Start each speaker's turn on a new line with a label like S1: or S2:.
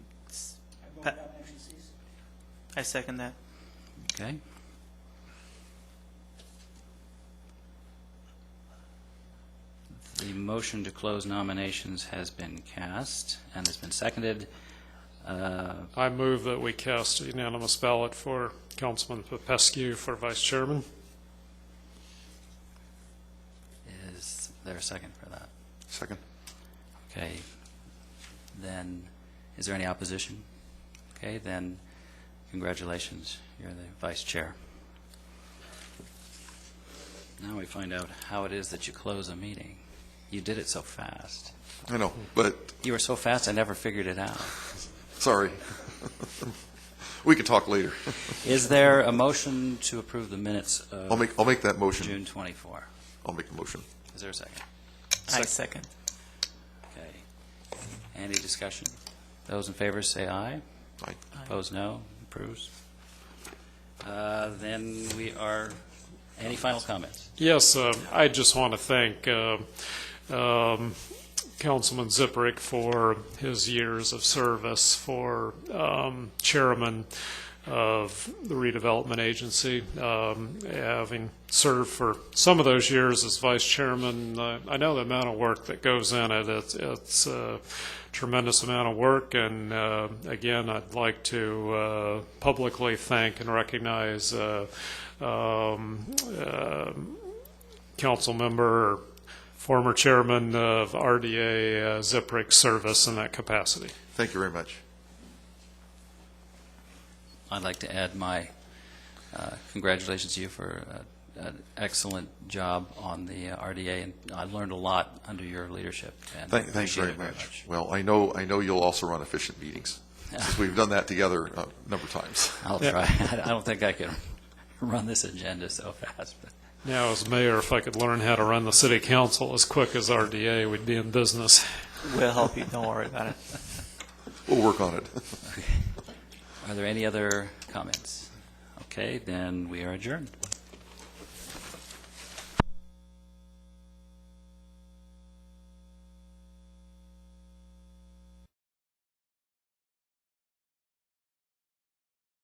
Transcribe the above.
S1: I second that.
S2: Okay. The motion to close nominations has been cast and has been seconded. Uh,
S3: I move that we cast a unanimous ballot for Councilman Popescu for vice chairman.
S2: Is there a second for that?
S4: Second.
S2: Okay. Then, is there any opposition? Okay, then, congratulations, you're the vice chair. Now we find out how it is that you close a meeting. You did it so fast.
S4: I know, but
S2: You were so fast, I never figured it out.
S4: sorry. we can talk later.
S2: Is there a motion to approve the minutes
S4: I'll
S2: of
S4: make I'll make that motion.
S2: June 24?
S4: I'll make the motion.
S2: Is there a second?
S1: I second.
S2: Okay. Any discussion? Those in favor say aye.
S4: Aye.
S2: Opposed, no. Approves. Uh, Then we are, any final comments?
S3: Yes, um, I just want to thank uh, um, Councilman Ziprick for his years of service for um, chairman of the redevelopment agency, um, having served for some of those years as vice chairman. uh, I know the amount of work that goes in it. It's- It's a tremendous amount of work, and uh, again, I'd like to uh, publicly thank and recognize uh, um, uh, council member, or former chairman of RDA uh, Ziprick service in that capacity.
S4: Thank you very much.
S2: I'd like to add my uh, congratulations to you for uh, an excellent job on the uh, RDA, and I learned a lot under your leadership. and
S4: Thank, thanks
S2: appreciate
S4: very
S2: it
S4: much. Well, I know I know you'll also run efficient meetings since we've done that together uh, a number of times.
S2: I'll try. I don't think I can run this agenda so fast, but
S3: Now, as mayor, if I could learn how to run the city council as quick as RDA, we'd be in business.
S1: We'll help you. Don't worry about it.
S4: We'll work on it.
S2: Are there any other comments? Okay, then we are adjourned.